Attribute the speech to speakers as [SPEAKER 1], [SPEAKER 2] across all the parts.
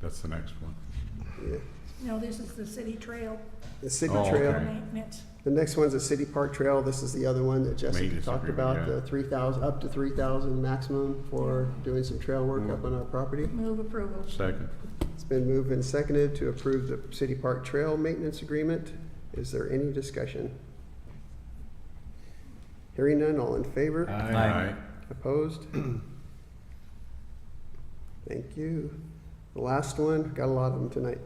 [SPEAKER 1] That's the next one.
[SPEAKER 2] No, this is the city trail
[SPEAKER 3] The city
[SPEAKER 1] Oh, okay.
[SPEAKER 3] trail,
[SPEAKER 2] maintenance.
[SPEAKER 3] the next one's a city park trail, this is the other one that Jessica
[SPEAKER 1] Maintenance
[SPEAKER 3] talked
[SPEAKER 1] agreement,
[SPEAKER 3] about,
[SPEAKER 1] yeah.
[SPEAKER 3] the three thousand, up to three thousand maximum for doing some trail work up on our property.
[SPEAKER 2] Move approval.
[SPEAKER 1] Second.
[SPEAKER 3] It's been moved and seconded to approve the city park trail maintenance agreement. Is there any discussion? Hearing none, all in favor?
[SPEAKER 1] Aye.
[SPEAKER 3] Opposed? Thank you. The last one, got a lot of them tonight.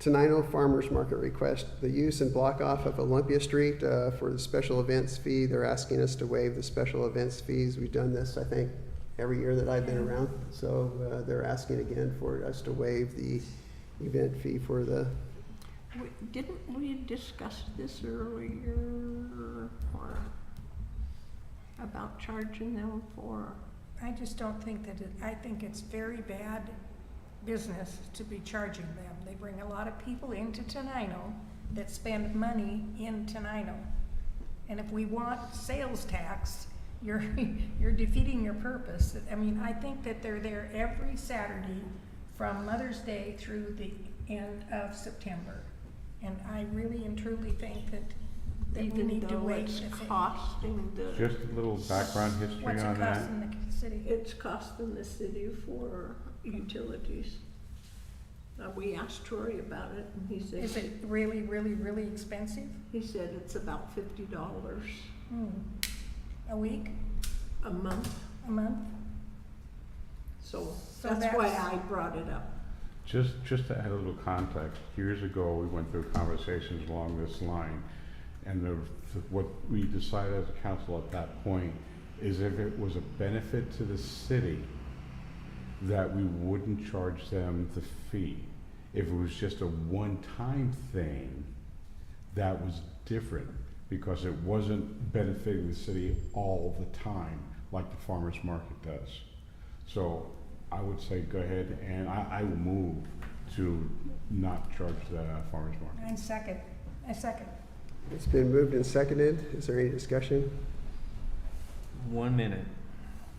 [SPEAKER 3] Tenino Farmers Market request, the use and block off of Olympia Street uh, for the special events fee. They're asking us to waive the special events fees. We've done this, I think, every year that I've been around. So uh, they're asking again for us to waive the event fee for the,
[SPEAKER 2] We- Didn't we discuss this earlier or about charging them for?
[SPEAKER 4] I just don't think that it, I think it's very bad business to be charging them. They bring a lot of people into Tenino that spend money in Tenino. And if we want sales tax, you're, you're defeating your purpose. I mean, I think that they're there every Saturday from Mother's Day through the end of September. And I really and truly think that, that we
[SPEAKER 2] Even
[SPEAKER 4] need to
[SPEAKER 2] though
[SPEAKER 4] wait.
[SPEAKER 2] it's
[SPEAKER 4] if it-
[SPEAKER 2] costing the,
[SPEAKER 1] Just a little background history
[SPEAKER 4] What's it
[SPEAKER 1] on that.
[SPEAKER 4] costing the city?
[SPEAKER 2] it's costing the city for utilities. Uh, we asked Troy about it and he
[SPEAKER 4] Is it
[SPEAKER 2] said,
[SPEAKER 4] really, really, really expensive?
[SPEAKER 2] he said it's about fifty dollars
[SPEAKER 4] Hmm. A week,
[SPEAKER 2] a month.
[SPEAKER 4] a month?
[SPEAKER 2] So
[SPEAKER 4] So
[SPEAKER 2] that's why
[SPEAKER 4] that's-
[SPEAKER 2] I brought it up.
[SPEAKER 1] Just, just to add a little context, years ago, we went through conversations along this line, and the, what we decided as a council at that point is if it was a benefit to the city, that we wouldn't charge them the fee. If it was just a one-time thing, that was different, because it wasn't benefiting the city all the time, like the farmer's market does. So I would say go ahead and I, I will move to not charge the farmer's market.
[SPEAKER 4] I second, I second.
[SPEAKER 3] it's been moved and seconded. Is there any discussion?
[SPEAKER 5] One minute.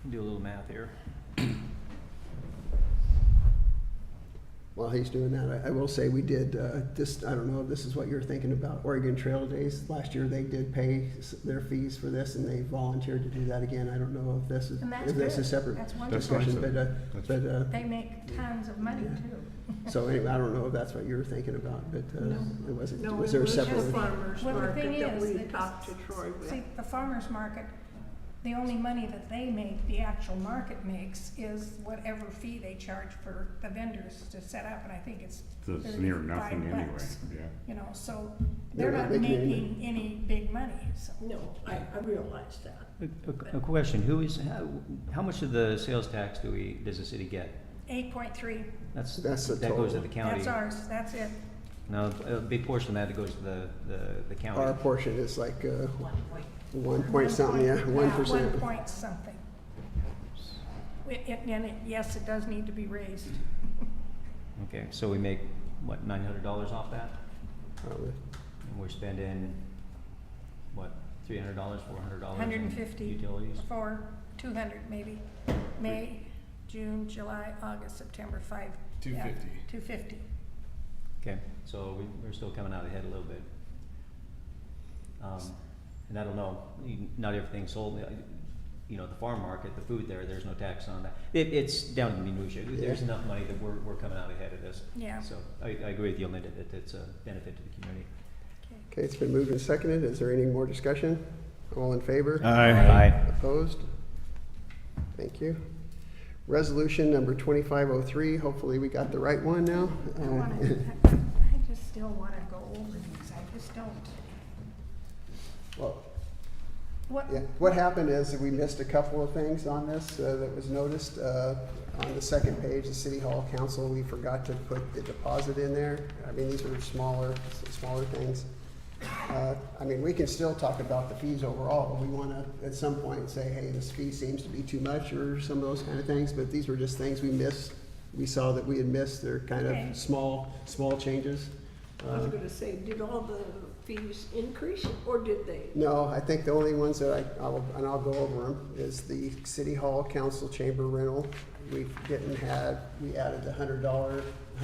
[SPEAKER 5] Do a little math here.
[SPEAKER 3] While he's doing that, I, I will say we did, uh, this, I don't know if this is what you're thinking about, Oregon Trail Days. Last year, they did pay s- their fees for this and they volunteered to do that again. I don't know if this is,
[SPEAKER 4] And that's
[SPEAKER 3] if this
[SPEAKER 4] good.
[SPEAKER 3] is separate
[SPEAKER 4] That's wonderful.
[SPEAKER 3] discussion, but, uh,
[SPEAKER 1] That's-
[SPEAKER 3] but, uh,
[SPEAKER 4] They make tons of money too.
[SPEAKER 3] so anyway, I don't know if that's what you were thinking about, but, uh,
[SPEAKER 2] No.
[SPEAKER 3] it wasn't,
[SPEAKER 2] No, it
[SPEAKER 3] was there a
[SPEAKER 2] was the
[SPEAKER 3] separate?
[SPEAKER 2] farmer's
[SPEAKER 4] Well, the thing
[SPEAKER 2] market that
[SPEAKER 4] is,
[SPEAKER 2] we
[SPEAKER 4] that-
[SPEAKER 2] talked to Troy with.
[SPEAKER 4] See, the farmer's market, the only money that they make, the actual market makes, is whatever fee they charge for the vendors to set up, and I think it's
[SPEAKER 1] It's near nothing
[SPEAKER 4] thirty-five
[SPEAKER 1] anyway,
[SPEAKER 4] bucks.
[SPEAKER 1] yeah.
[SPEAKER 4] You know, so
[SPEAKER 3] They're
[SPEAKER 4] they're
[SPEAKER 3] not
[SPEAKER 4] not
[SPEAKER 3] making any
[SPEAKER 4] making any big money, so.
[SPEAKER 2] No, I, I realize that.
[SPEAKER 5] A, a question, who is, how, how much of the sales tax do we, does the city get?
[SPEAKER 4] Eight point three,
[SPEAKER 5] That's,
[SPEAKER 3] That's the
[SPEAKER 5] that goes to
[SPEAKER 3] total.
[SPEAKER 5] the county.
[SPEAKER 4] that's ours, that's it.
[SPEAKER 5] No, a big portion of that goes to the, the, the county.
[SPEAKER 3] Our portion is like, uh,
[SPEAKER 2] One point.
[SPEAKER 3] one point something, yeah, one percent.
[SPEAKER 4] One point something. It- it- And it, yes, it does need to be raised.
[SPEAKER 5] Okay, so we make, what, nine hundred dollars off that?
[SPEAKER 3] Probably.
[SPEAKER 5] And we're spending, what, three hundred dollars, four hundred dollars?
[SPEAKER 4] Hundred and fifty.
[SPEAKER 5] Utilities?
[SPEAKER 4] Four, two hundred maybe. May, June, July, August, September, five.
[SPEAKER 6] Two fifty.
[SPEAKER 4] Two fifty.
[SPEAKER 5] Okay, so we, we're still coming out ahead a little bit. Um, and I don't know, you- not everything's sold, uh, you know, the farm market, the food there, there's no tax on that. It, it's down to minutia, there's
[SPEAKER 3] Yeah.
[SPEAKER 5] enough money that we're, we're coming out ahead of this.
[SPEAKER 4] Yeah.
[SPEAKER 5] So I, I agree with you, Linda, that it's a benefit to the community.
[SPEAKER 3] Okay, it's been moved and seconded. Is there any more discussion? All in favor?
[SPEAKER 5] Aye.
[SPEAKER 3] Opposed? Thank you. Resolution number 2503, hopefully we got the right one now.
[SPEAKER 4] I
[SPEAKER 3] Uh,
[SPEAKER 4] wanna, I just still wanna go over these, I just don't.
[SPEAKER 3] Well,
[SPEAKER 4] What,
[SPEAKER 3] yeah, What happened is we missed a couple of things on this uh, that was noticed. Uh, On the second page, the City Hall Council, we forgot to put the deposit in there. I mean, these are smaller, smaller things. Uh, I mean, we can still talk about the fees overall, but we want to, at some point, say, hey, this fee seems to be too much, or some of those kind of things, but these were just things we missed. We saw that we had missed, they're kind
[SPEAKER 4] Okay.
[SPEAKER 3] of small, small changes.
[SPEAKER 2] I was
[SPEAKER 3] Uh,
[SPEAKER 2] gonna say, did all the fees increase or did they?
[SPEAKER 3] No, I think the only ones that I, I'll, and I'll go over them, is the city hall council chamber rental. We didn't have, we added the hundred dollar,